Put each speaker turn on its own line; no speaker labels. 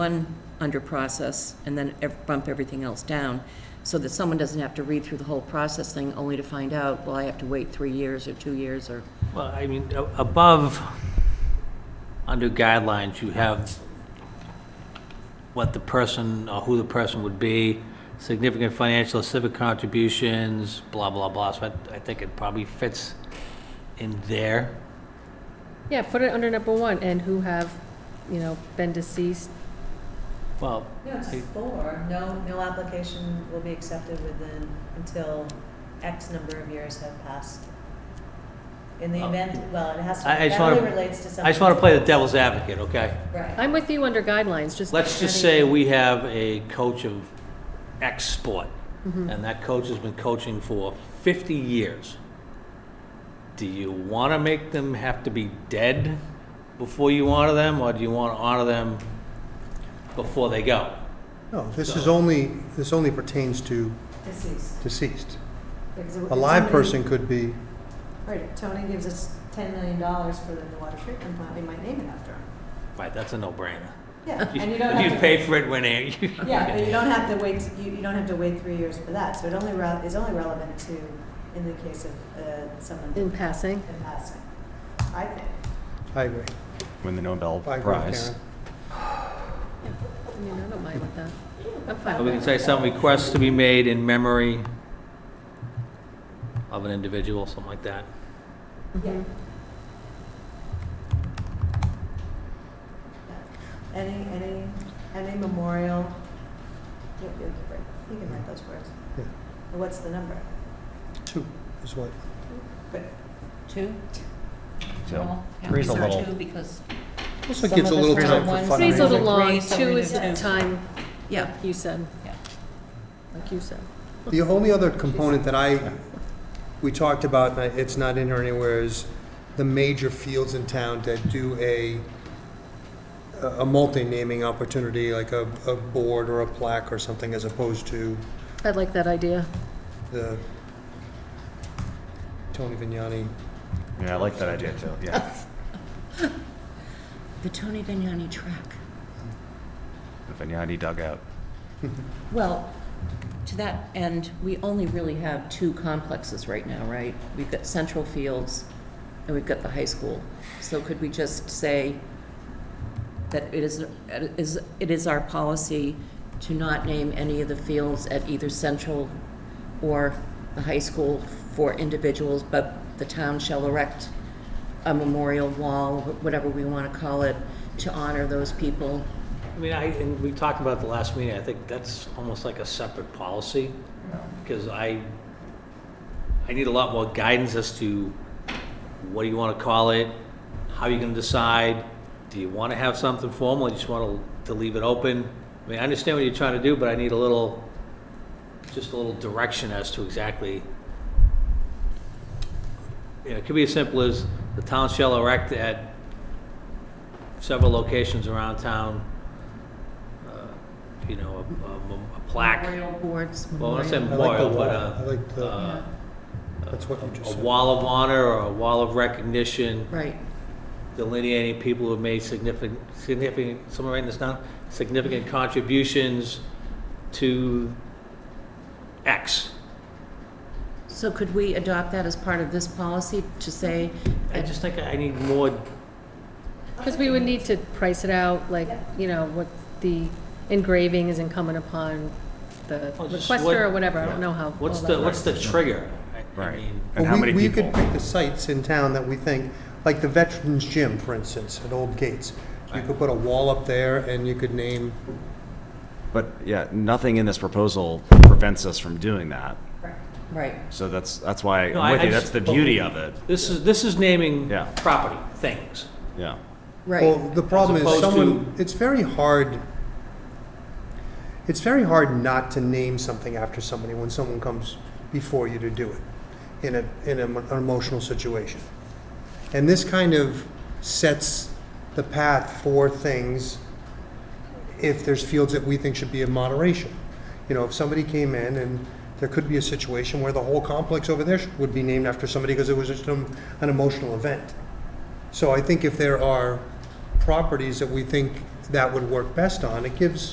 one under process and then ev- bump everything else down, so that someone doesn't have to read through the whole process thing only to find out, well, I have to wait three years or two years or,
Well, I mean, a- above, under guidelines, you have what the person, or who the person would be, significant financial or civic contributions, blah, blah, blah. So I, I think it probably fits in there.
Yeah, put it under number one, and who have, you know, been deceased.
Well,
No, it's
Hey.
four, no, no application will be accepted within, until X number of years have passed. In the
Oh.
event, well, it has to,
I- I just
that
wanna-
really relates to something.
I just want to play the devil's advocate, okay?
Right,
I'm with you under guidelines, just.
Let's just say we have a coach of X sport,
Mm-hmm.
and that coach has been coaching for 50 years. Do you want to make them have to be dead before you honor them, or do you want to honor them before they go?
No, this is only, this only pertains to
deceased.
deceased.
Because
A
it-
live
somebody-
person could be,
Right, Tony gives us ten million dollars for the water treatment plant, we might name it after him.
Right, that's a no-brainer.
Yeah, and you don't
If you
have to,
pay for it when it...
yeah, but you don't have to wait, you, you don't have to wait three years for that, so it only, re- is only relevant to, in the case of, uh, someone
In
in
passing,
passing, I think.
I agree,
win the Nobel
I agree with
Prize.
Karen.
I mean, I don't mind with that. I'm fine
Or We can
with
say some requests to be made in memory of an individual, something like that.
that.
Yeah.
Mhm.
Any, any, any memorial, you you can write, you can write those words.
Yeah.
What's the number?
Two is what,
But
two?
So,
Well,
three's a
these are
little-
two Because,
also
Some
gives a
of us
little
are
time
ones-
for
Three's a little
fundraising.
long,
Raise
two is
somebody to two.
time,
yeah,
you said.
Yeah.
Like you said.
The only other component that I, we talked about, and I- it's not in here anywhere, is the major fields in town that do a, a multi-naming opportunity, like a, a board or a plaque or something, as opposed to
I like that idea.
the Tony Vignani.
Yeah, I like that idea too, yeah.
the Tony Vignani track.
The Vignani dugout.
Well, to that end, we only really have two complexes right now, right? We've got Central Fields and we've got the high school. So could we just say that it is, it is, it is our policy to not name any of the fields at either Central or the high school for individuals, but the town shall erect a memorial wall, whatever we want to call it, to honor those people?
I mean, I, and we talked about the last meeting, I think that's almost like a separate policy, because I, I need a lot more guidance as to what do you want to call it, how you can decide, do you want to have something formal, you just want to, to leave it open? I mean, I understand what you're trying to do, but I need a little, just a little direction as to exactly, you know, it could be as simple as, the town shall erect at several locations around town, uh, you know, a- a mem- a plaque.
Memorial boards,
Well, I want to say
memorial-
I like
memorial,
the
but
wall.
uh,
I like the-
uh,
That's what you
a
just said.
wall of honor or a wall of recognition
Right.
delineating people who have made significant, significant, someone writing this down, significant contributions to X.
So could we adopt that as part of this policy to say,
I just think I need more,
Because we would need to price it out, like, you know, what the engraving is incumbent upon the
Well, just what-
requester or whatever. I don't know how.
what's
all
the,
that
what's the trigger? I- I
Right.
mean,
And how
Well, we-
many
We
people?
could pick the sites in town that we think, like the Veterans Gym, for instance, at Old Gates. You could put a wall up there and you could name,
But yeah, nothing in this proposal prevents us from doing that.
right,
So that's, that's why
No,
I'm
I-
with
I
you. That's
just-
the beauty of it.
This is, this is naming
Yeah.
property, things.
Yeah.
well,
right.
the problem
As
is
opposed
someone, it's very hard, it's very hard not to name something after somebody when someone comes before you to do it in a, in a- an emotional situation. And this kind of sets the path for things if there's fields that we think should be in moderation. You know, if somebody came in and there could be a situation where the whole complex over there should- would be named after somebody because it was just an, an emotional event. So I think if there are properties that we think that would work best on. It gives